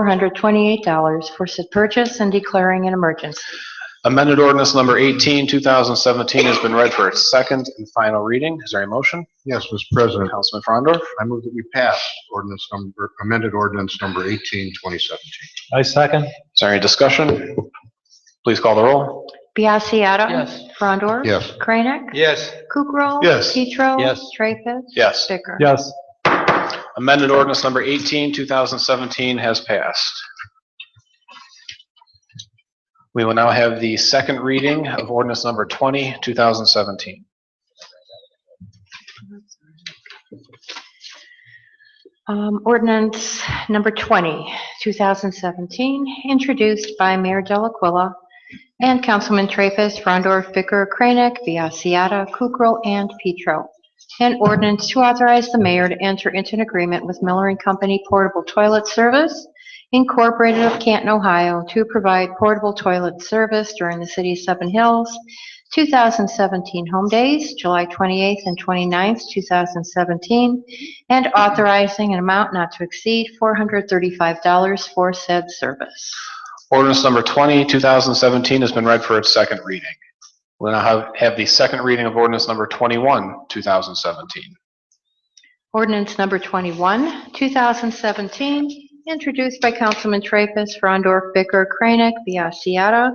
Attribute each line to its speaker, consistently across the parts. Speaker 1: $10,428 for said purchase and declaring an emergency.
Speaker 2: Amended ordinance number 18, 2017 has been read for its second and final reading. Is there a motion?
Speaker 3: Yes, Mr. President,
Speaker 2: Councilman Frondor,
Speaker 3: I move that we pass ordinance number, amended ordinance number 18, 2017.
Speaker 4: I second.
Speaker 2: is there any discussion? Please call the roll.
Speaker 1: Biassiata.
Speaker 4: Yes.
Speaker 1: Frondor.
Speaker 3: Yes.
Speaker 1: Kranek.
Speaker 4: Yes.
Speaker 1: Kukrow.
Speaker 2: Yes.
Speaker 1: Petro.
Speaker 4: Yes.
Speaker 1: Treffus.
Speaker 2: Yes.
Speaker 1: Bicker.
Speaker 4: Yes.
Speaker 2: Amended ordinance number 18, 2017 has passed. We will now have the second reading of ordinance number 20, 2017.
Speaker 1: Um, Ordinance number 20, 2017, introduced by Mayor Delaquila and Councilman Traffus, Frondor, Bicker, Kranek, Biassiata, Kukrow, and Petro. An ordinance to authorize the mayor to enter into an agreement with Miller and Company Portable Toilet Service Incorporated of Canton, Ohio, to provide portable toilet service during the city's Seven Hills 2017 home days, July 28th and 29th, 2017, and authorizing an amount not to exceed $435 for said service.
Speaker 2: Ordinance number 20, 2017 has been read for its second reading. We'll now have- have the second reading of ordinance number 21, 2017.
Speaker 1: Ordinance number 21, 2017, introduced by Councilman Traffus, Frondor, Bicker, Kranek, Biassiata,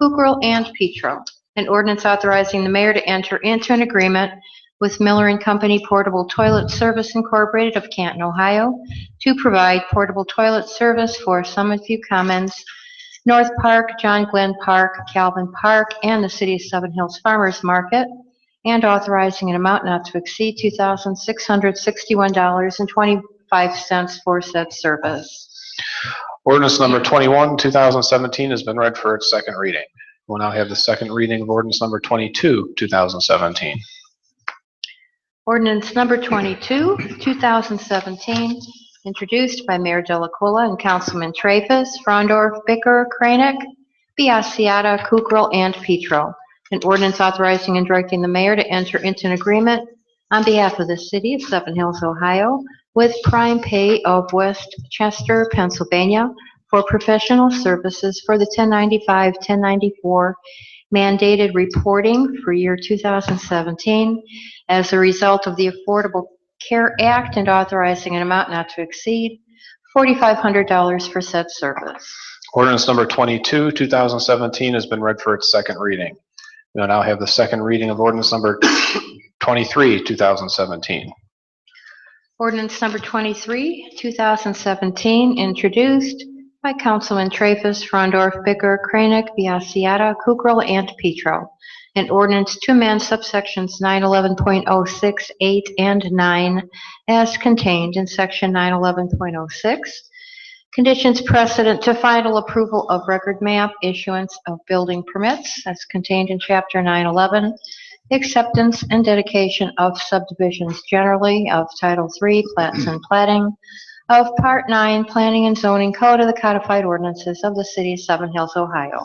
Speaker 1: Kukrow, and Petro. An ordinance authorizing the mayor to enter into an agreement with Miller and Company Portable Toilet Service Incorporated of Canton, Ohio, to provide portable toilet service for Summitview Commons, North Park, John Glenn Park, Calvin Park, and the city of Seven Hills Farmers Market, and authorizing an amount not to exceed $2,661.25 for said service.
Speaker 2: Ordinance number 21, 2017 has been read for its second reading. We'll now have the second reading of ordinance number 22, 2017.
Speaker 1: Ordinance number 22, 2017, introduced by Mayor Delacola and Councilman Traffus, Frondor, Bicker, Kranek, Biassiata, Kukrow, and Petro. An ordinance authorizing and directing the mayor to enter into an agreement on behalf of the city of Seven Hills, Ohio, with Prime Pay of West Chester, Pennsylvania, for professional services for the 1095, 1094 mandated reporting for year 2017 as a result of the Affordable Care Act and authorizing an amount not to exceed $4,500 for said service.
Speaker 2: Ordinance number 22, 2017 has been read for its second reading. We'll now have the second reading of ordinance number 23, 2017.
Speaker 1: Ordinance number 23, 2017, introduced by Councilman Traffus, Frondorf, Bicker, Kranek, Biassiata, Kukrow, and Petro. An ordinance to amend subsections 911.06, 8, oh and 9 as contained in section 911.06, conditions precedent to final approval of record map, issuance of building permits as contained in chapter 911, acceptance and dedication of subdivisions generally of Title III, plats and plating of Part 9, Planning and Zoning Code of the Codified Ordinances of the City of Seven Hills, Ohio.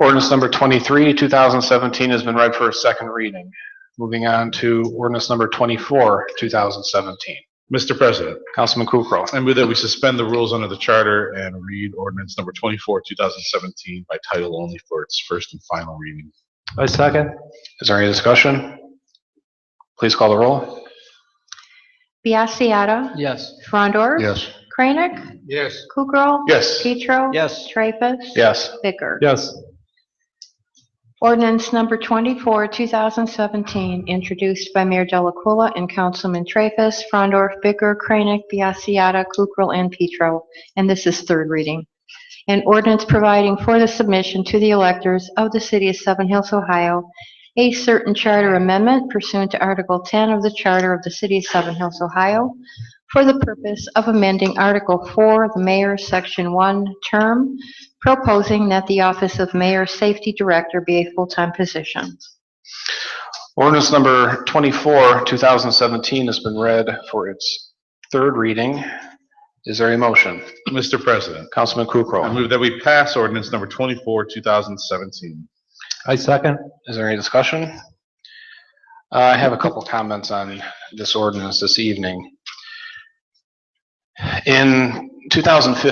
Speaker 2: Ordinance number 23, 2017 has been read for its second reading. Moving on to ordinance number 24, 2017.
Speaker 5: Mr. President,
Speaker 2: Councilman Kukrow.
Speaker 5: I move that we suspend the rules under the charter and read ordinance number 24, 2017 by title only for its first and final reading.
Speaker 4: I second.
Speaker 2: Is there any discussion? Please call the roll.
Speaker 1: Biassiata.
Speaker 4: Yes.
Speaker 1: Frondor.
Speaker 3: Yes.
Speaker 1: Kranek.
Speaker 4: Yes.
Speaker 1: Kukrow.
Speaker 2: Yes.
Speaker 1: Petro.
Speaker 4: Yes.
Speaker 1: Treffus.
Speaker 2: Yes.
Speaker 1: Bicker.
Speaker 4: Yes.
Speaker 1: Ordinance number 24, 2017, introduced by Mayor Delaculla and Councilman Traffus, Frondorf, Bicker, Kranek, Biassiata, Kukrow, and Petro, and this is third reading. An ordinance providing for the submission to the electors of the city of Seven Hills, Ohio, a certain charter amendment pursuant to Article 10 of the Charter of the City of Seven Hills, Ohio, for the purpose of amending Article 4, the mayor's Section 1 term, proposing that the office of mayor safety director be a full-time position.
Speaker 2: Ordinance number 24, 2017 has been read for its third reading. Is there a motion?
Speaker 5: Mr. President,
Speaker 2: Councilman
Speaker 5: I
Speaker 2: Kukrow.
Speaker 5: move that we pass ordinance number 24, 2017.
Speaker 4: I second.
Speaker 2: Is there any discussion? Uh, I have a couple comments on this ordinance this evening. In 2015,